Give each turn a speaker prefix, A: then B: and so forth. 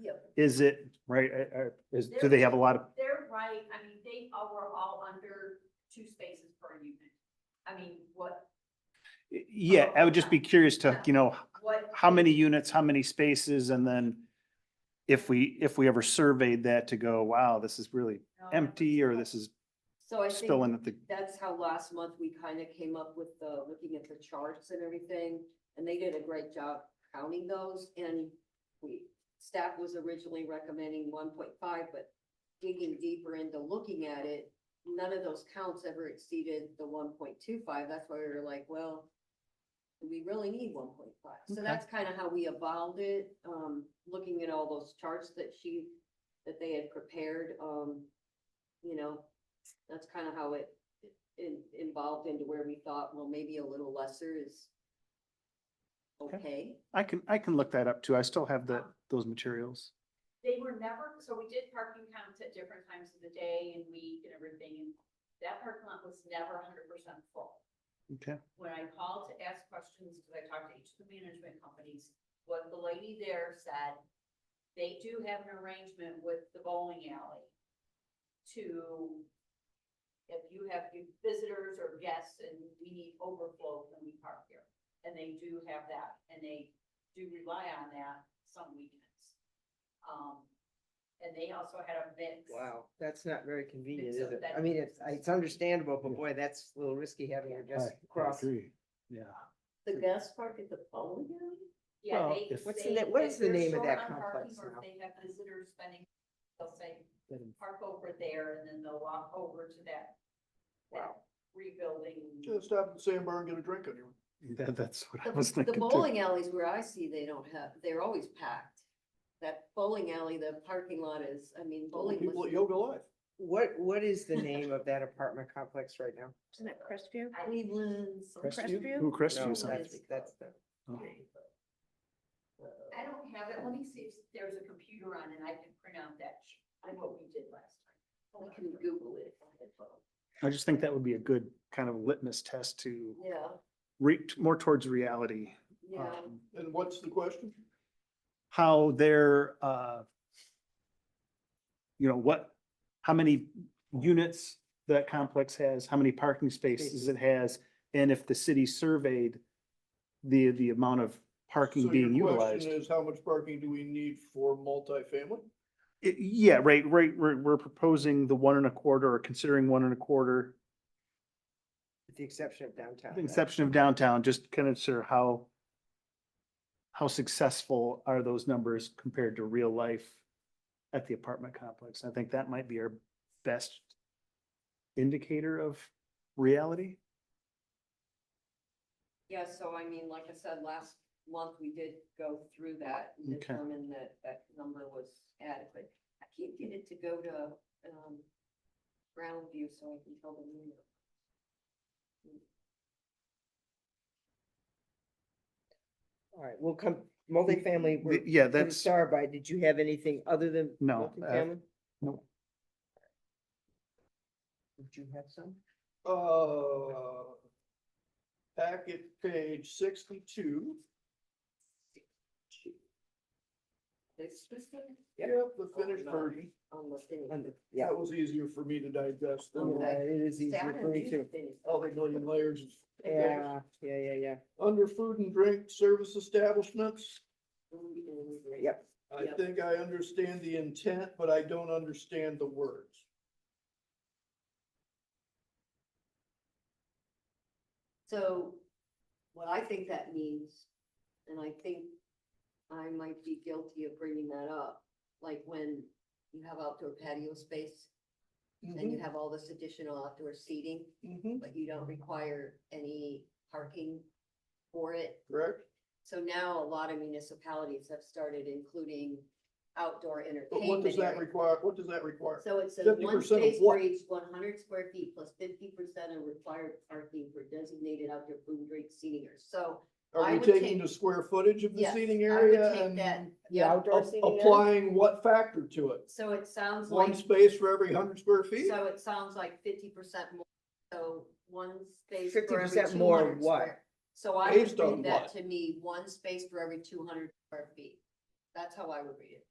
A: Yep.
B: Is it, right, uh, uh, is, do they have a lot of,
A: They're right, I mean, they are all under two spaces per unit. I mean, what,
B: yeah, I would just be curious to, you know,
A: what?
B: how many units, how many spaces, and then if we, if we ever surveyed that to go, wow, this is really empty, or this is
C: So I
B: still
C: think
B: in at the,
C: that's how last month we kind of came up with the, looking at the charts and everything. And they did a great job counting those and we, staff was originally recommending one point five, but digging deeper into looking at it, none of those counts ever exceeded the one point two five. That's why we were like, well, do we really need one point five. So
B: Okay.
C: that's kind of how we evolved it, um, looking at all those charts that she, that they had prepared, um, you know, that's kind of how it in, involved into where we thought, well, maybe a little lesser is
B: Okay.
C: okay.
B: I can, I can look that up too. I still have the, those materials.
A: They were never, so we did parking counts at different times of the day and week and everything, and that parking lot was never hundred percent full.
B: Okay.
A: when I called to ask questions, because I talked to each of the management companies, what the lady there said, they do have an arrangement with the bowling alley to, if you have visitors or guests and we need overflow, can we park here? And they do have that, and they do rely on that some weekends. Um, and they also had a mix.
D: Wow, that's not very convenient,
A: so
D: is it?
A: that-
D: I mean, it's, it's understandable, but boy, that's a little risky having your guests cross.
B: Yeah.
C: The guest park at the bowling alley?
A: Yeah,
B: Well,
A: they.
B: if-
D: What's the
A: they-
D: na- what
A: if
D: is the
A: they're
D: name of
A: short
D: that
A: on parking
D: complex
A: or if
D: now?
A: They have visitors spending, they'll say,
D: Let 'em-
A: park over there and then they'll walk over to that. that Rebuilding.
E: Just stop at the sandbar and get a drink on your.
B: That, that's what I was
C: The- The
B: thinking too.
C: bowling alleys where I see, they don't have, they're always packed. That bowling alley, the parking lot is, I mean, bowling
E: People at
C: was,
E: Yoga Life.
D: What, what is the name of that apartment complex right now?
F: Isn't it Crestview?
A: I-
C: Cleveland's.
F: Crestview?
B: Who
D: No,
B: Crestview sounds?
D: that's, that's the.
B: Oh.
A: I don't have it. Let me see if there's a computer on and I can print out that, sh- on what we did last time.
C: I can Google it.
B: I just think that would be a good kind of litmus test to
C: Yeah,
B: re, more towards reality.
C: yeah.
B: um,
E: And what's the question?
B: how their, uh, you know, what, how many units that complex has, how many parking spaces it has, and if the city surveyed the, the amount of parking
E: So your
B: being
E: question
B: utilized.
E: Is how much parking do we need for multifamily?
B: I- Yeah, right, right, we're, we're proposing the one and a quarter or considering one and a quarter,
D: With the exception of downtown.
B: with the exception of downtown, just kind of sure how how successful are those numbers compared to real life at the apartment complex? I think that might be our best indicator of reality.
C: Yeah, so I mean, like I said, last month, we did go through that and
B: Okay.
C: determine that that number was adequate. I can't get it to go to, um, ground view so I can tell the number.
D: All right, we'll come, multifamily, we're,
B: Th- Yeah,
D: from
B: that's,
D: Star by, did you have anything other than?
B: No, uh,
D: multifamily?
B: no.
D: Did you have some?
E: Uh, packet page sixty-two.
C: This specific
D: Yep.
E: Yep, the finished
C: no.
E: version.
C: almost any.
D: Under- Yeah, Oh,
E: That was easier for me to digest than
D: yeah, it is easier for me too.
E: all the million layers. of-
D: Yeah, yeah, yeah, yeah.
E: Under food and drink service establishments,
D: Yep,
E: I
C: Yep.
E: think I understand the intent, but I don't understand the words.
C: So what I think that means, and I think I might be guilty of bringing that up, like when you have outdoor patio space and you have all this additional outdoor seating,
E: Mm-hmm,
C: but you don't require any parking for it.
E: correct?
C: So now a lot of municipalities have started including outdoor
E: But what does
C: entertainment.
E: that
C: area.
E: require? What does that require?
C: So it says
E: 50%
C: one
E: of
C: space for
E: what?
C: each one hundred square feet plus fifty percent of required parking for designated outdoor food, drink, seating areas. So
E: Are
C: I
E: we
C: would
E: taking
C: take-
E: the square footage of the
C: yes,
E: seating
C: I would
E: area
C: take
E: and
C: that,
D: the
C: yeah.
D: outdoor
E: a-
D: seating area?
E: applying what factor to it?
C: So it sounds like,
E: One space for every hundred square feet?
C: so it sounds like fifty percent more, so one space for every
D: 50%
C: two
D: more
C: hundred
D: what?
C: square. So I
E: Based
C: would
E: on
C: read that
E: what?
C: to me, one space for every two hundred square feet. That's how I would read it.